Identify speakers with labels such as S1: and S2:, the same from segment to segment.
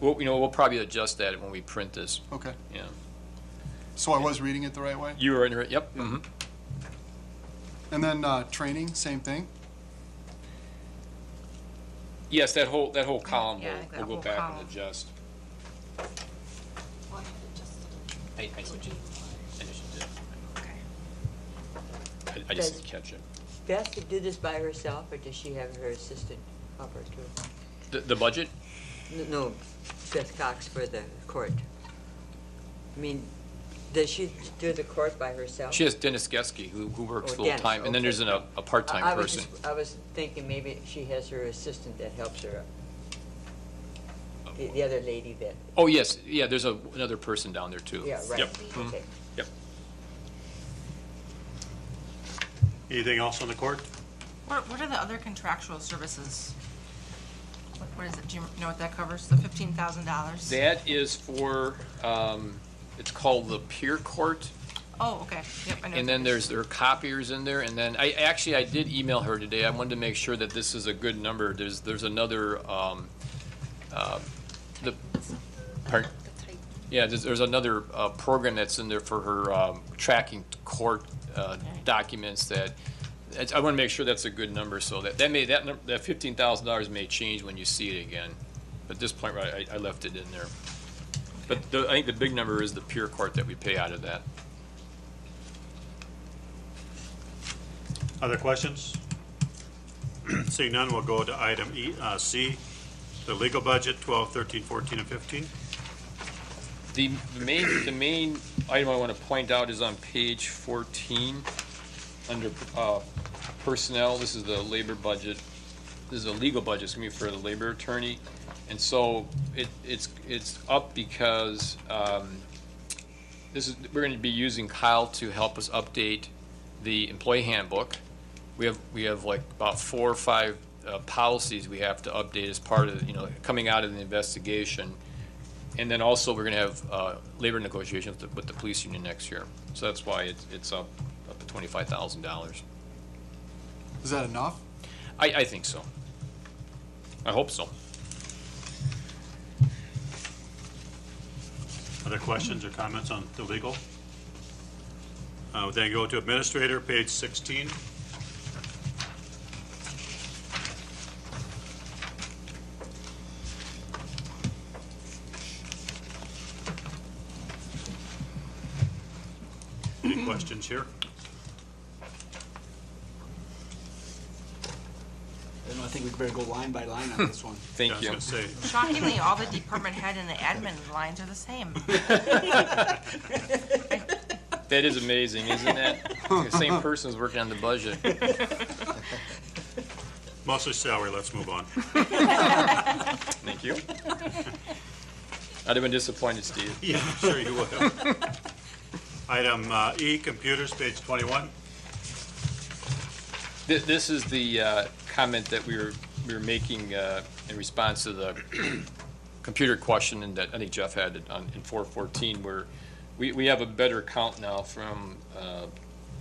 S1: Well, you know, we'll probably adjust that when we print this,
S2: Okay,
S1: yeah.
S2: so I was reading it the right way?
S1: You were in, it, yep, mhm.
S2: And then, uh, training, same thing?
S1: Yes, that whole, that whole column,
S3: Yeah, I think
S1: we'll,
S3: that
S1: we'll go
S3: whole
S1: back
S3: column.
S1: and adjust.
S4: Well, I had it just
S1: I, I just, I just did. I- I just
S5: Does-
S1: didn't catch it.
S5: Beth to do this by herself, or does she have her assistant help her too?
S1: The, the budget?
S5: N- No, Beth Cox for the court. I mean, does she do the court by herself?
S1: She has Dennis Geske, who, who works
S5: Oh, Dennis,
S1: full-time, and then
S5: okay.
S1: there's an- a, a
S5: I-
S1: part-time
S5: I was
S1: person.
S5: just- I was thinking maybe she has her assistant that helps her, uh, the, the other lady that,
S1: Oh, yes, yeah, there's a, another person down there, too.
S5: yeah, right.
S1: Yep, mhm,
S5: okay.
S1: yep.
S6: Anything else on the court?
S3: What, what are the other contractual services? What- What is it, do you know what that covers, the fifteen thousand dollars?
S1: That is for, um, it's called the peer court,
S3: Oh, okay, yep, I know.
S1: and then there's, there are copiers in there, and then, I, actually, I did email her today, I wanted to make sure that this is a good number, there's, there's another, um, uh, the, pardon? Yeah, there's, there's another, uh, program that's in there for her, um, tracking court, uh, documents that, it's- I wanna make sure that's a good number, so that, that may, that, num- that fifteen thousand dollars may change when you see it again. At this point, right, I, I left it in there. But the, I think the big number is the pure court that we pay out of that.
S6: Other questions? Seeing none, we'll go to item E, uh, C, the legal budget, 12, 13, 14, and 15.
S1: The the main, the main item I want to point out is on page 14, under uh, personnel, this is the labor budget, this is a legal budget, it's going to be for the labor attorney, and so it, it's, it's up because um, this is, we're going to be using Kyle to help us update the employee handbook. We have, we have like about four or five uh, policies we have to update as part of, you know, coming out of the investigation. And then also, we're going to have uh, labor negotiations with the- with the police union next year. So that's why it's it's up up to $25,000.
S2: Is that enough?
S1: I, I think so. I hope so.
S6: Other questions or comments on the legal? Uh, we'll Then go to administrator, page 16. Any questions here?
S7: And I think we better go line by line on this one.
S6: Yeah,
S1: Thank
S6: I
S1: you.
S6: was going to say,
S3: Shockingly, all the department head and the admin lines are the same.
S1: That is amazing, isn't it? The Same person's working on the budget.
S6: mostly salary, let's move on.
S1: Thank you. I'd have been disappointed, Steve.
S6: Yeah, I'm sure you will. Item uh, E, computers, page 21.
S1: Th- This is the uh, comment that we were, we were making uh, in response to the computer question and that I think Jeff had it on, in 414, where we, we have a better count now from, uh,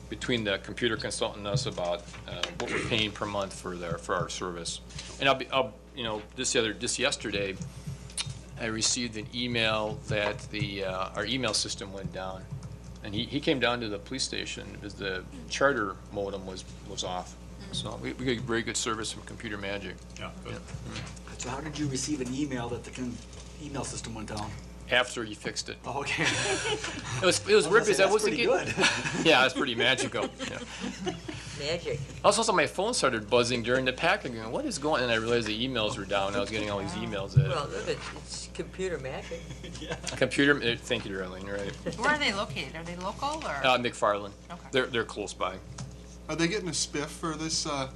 S1: between the computer consultant and us about uh, what we're paying per month for their, for our service. And I'll be, I'll, you know, this the other, just yesterday, I received an email that the, uh, our email system went down. And he, he came down to the police station because the charter modem was, was off. So we, we got very good service from Computer Magic.
S6: Yeah, good.
S7: So how did you receive an email that the con- email system went down?
S1: After you fixed it.
S7: Oh, okay.
S1: It was, it was weird because I
S7: That's
S1: wasn't
S7: pretty
S1: getting.
S7: good.
S1: Yeah, that's pretty magical. yeah. Mm-hmm.
S5: Magic.
S1: Also, so my phone started buzzing during the packing. Going, what is going? And I realized the emails were down. I was getting all these emails.
S5: Well,
S1: That
S5: look, it's- it's computer magic.
S1: computer. eh, Thank you, Darlene. Right.
S3: Where are they located? Are they local or?
S1: Uh, McFarland.
S3: Okay.
S1: They're they're close by.
S2: Are they getting a spiff for this, uh,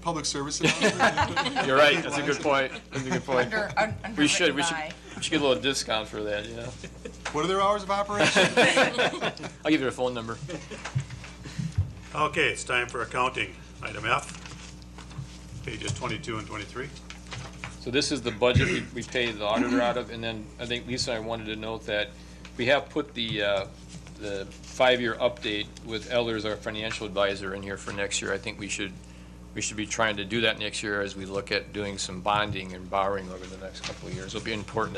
S2: public service announcement?
S1: You're right. That's a good point. That's a good point.
S3: Under, un- underwritten by?
S1: We should we should we should get a little discount for that. You know.
S2: What are their hours of operation?
S1: I'll give you their phone number.
S6: Okay, it's time for accounting. Item F, pages 22 and 23.
S1: So this is the budget we, we pay the auditor out of, and then I think Lisa and I wanted to note that we have put the, uh, the five-year update with Elders, our financial advisor, in here for next year. I think we should, we should be trying to do that next year as we look at doing some bonding and borrowing over the next couple of years. It'll be important to